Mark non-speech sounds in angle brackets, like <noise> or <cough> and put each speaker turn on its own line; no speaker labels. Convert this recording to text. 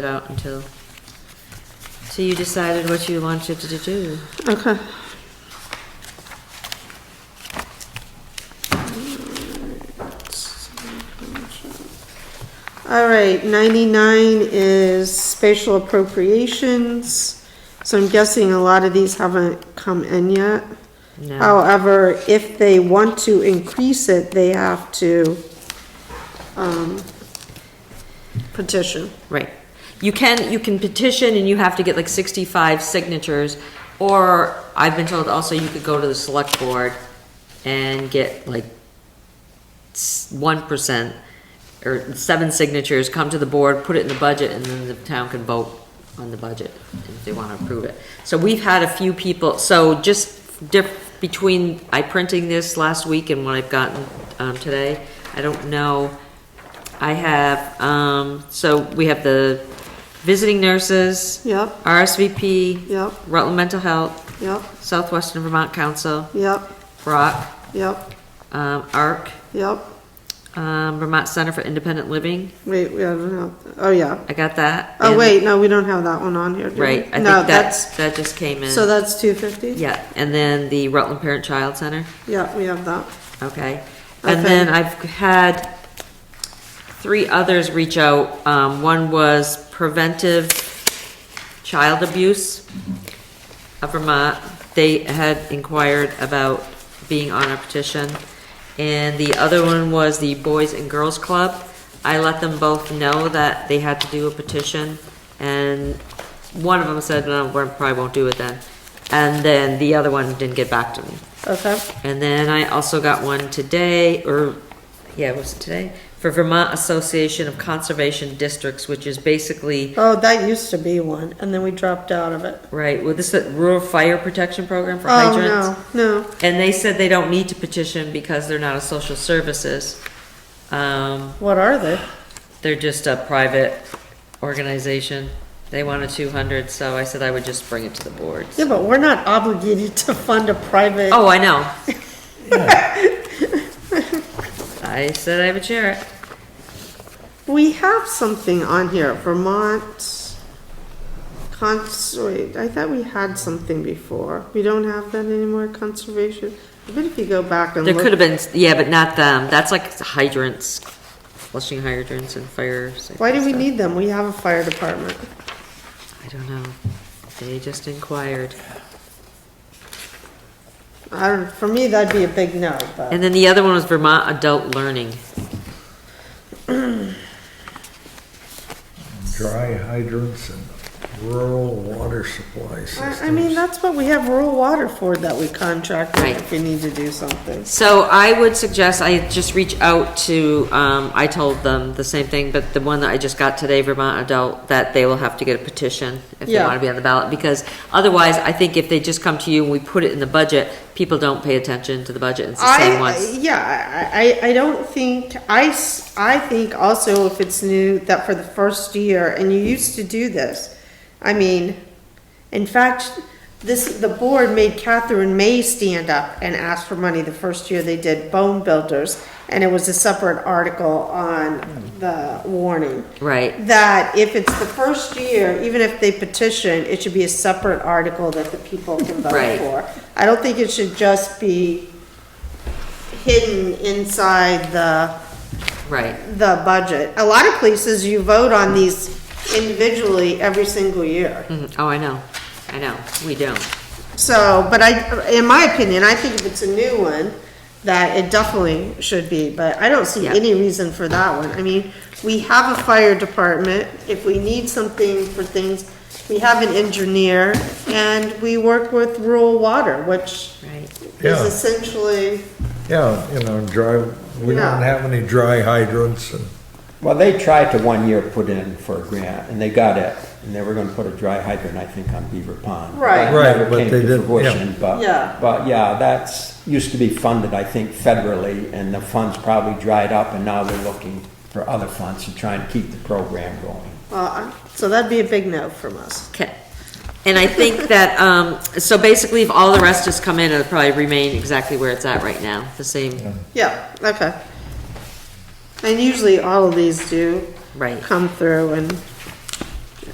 it out until, so you decided what you wanted to do.
Okay. All right, 99 is spatial appropriations. So I'm guessing a lot of these haven't come in yet. Oh,
No,
However, if they want to increase it, they have to um, petition.
right. You can, you can petition and you have to get like sixty-five signatures, or I've been told also you could go to the select board and get like one percent or seven signatures, come to the board, put it in the budget, and then the town can vote on the budget if they want to approve it. So we've had a few people, so just diff, between I printing this last week and what I've gotten, um, today, I don't know. I have, um, so we have the visiting nurses,
Yep,
RSVP,
yep,
Rutland Mental Health,
yep,
Southwestern Vermont Council,
yep,
Brock,
yep,
um, ARC,
yep.
um, Vermont Center for Independent Living,
Wait, we haven't have, oh yeah.
I got that.
Oh
And-
wait, no, we don't have that one on here, do we?
Right, I think
No,
that's, that just came
So
in.
that's two fifty?
Yeah, and then the Rutland Parent Child Center,
Yeah, we have that.
okay. And
Okay.
then I've had three others reach out. Um, one was preventive child abuse of Vermont. They had inquired about being on a petition. And the other one was the Boys and Girls Club. I let them both know that they had to do a petition, and one of them said, no, we probably won't do it then. And then the other one didn't get back to me.
Okay.
And then I also got one today, or, yeah, was it today? For Vermont Association of Conservation Districts, which is basically,
Oh, that used to be one, and then we dropped out of it.
right, well, this is a rural fire protection program for hydrants.
Oh, no, no.
And they said they don't need to petition because they're not a social services. Um,
What are they?
they're just a private organization. They want a two hundred, so I said I would just bring it to the board.
Yeah, but we're not obligated to fund a private.
Oh, I know.
<laughs>
I said I would share it.
We have something on here, Vermont cons, wait, I thought we had something before. We don't have that anymore, conservation. I bet if you go back and
There
look.
could have been, yeah, but not them. That's like hydrants, flushing hydrants and fire. safety
Why do we
stuff.
need them? We have a fire department.
I don't know. They just inquired.
I don't, for me, that'd be a big no, but.
And then the other one was Vermont Adult Learning.
dry hydrants and rural water supply systems.
I I mean, that's what we have rural water for, that we contract with
Right.
if we need to do something.
So I would suggest I just reach out to, um, I told them the same thing, but the one that I just got today, Vermont Adult, that they will have to get a petition if they
Yeah.
want to be on the ballot, because otherwise, I think if they just come to you and we put it in the budget, people don't pay attention to the budget. It's the same
I,
ones.
yeah, I, I- I don't think, I, s- I think also if it's new, that for the first year, and you used to do this. I mean, in fact, this, the board made Catherine May stand up and ask for money the first year they did Bone Builders, and it was a separate article on the warning.
Right.
that if it's the first year, even if they petition, it should be a separate article that the people can vote
Right.
for. I don't think it should just be hidden inside the,
Right.
the budget. A lot of places, you vote on these individually every single year.
Mhm. Oh, I know. I know. We don't.
So, but I, in my opinion, I think if it's a new one, that it definitely should be, but I don't see
Yeah.
any reason for that one. I mean, we have a fire department, if we need something for things, we have an engineer, and we work with rural water, which
Right.
is
Yeah.
essentially,
Yeah, you know, dry, we
Yeah.
don't have any dry hydrants and,
Well, they tried to one year put in for a grant, and they got it, and they were gonna put a dry hydrant, I think, on Beaver Pond.
Right.
That
Right,
never
but
came
they
to
didn't, yeah.
fruition,
Yeah.
But, but yeah, that's, used to be funded, I think, federally, and the funds probably dried up, and now they're looking for other funds to try and keep the program going.
uh, so that'd be a big no from us.
Okay. And I think <laughs> that, um, so basically if all the rest has come in, it'll probably remain exactly where it's at right now, the same,
Yeah, okay. And usually all of these do
right.
come through and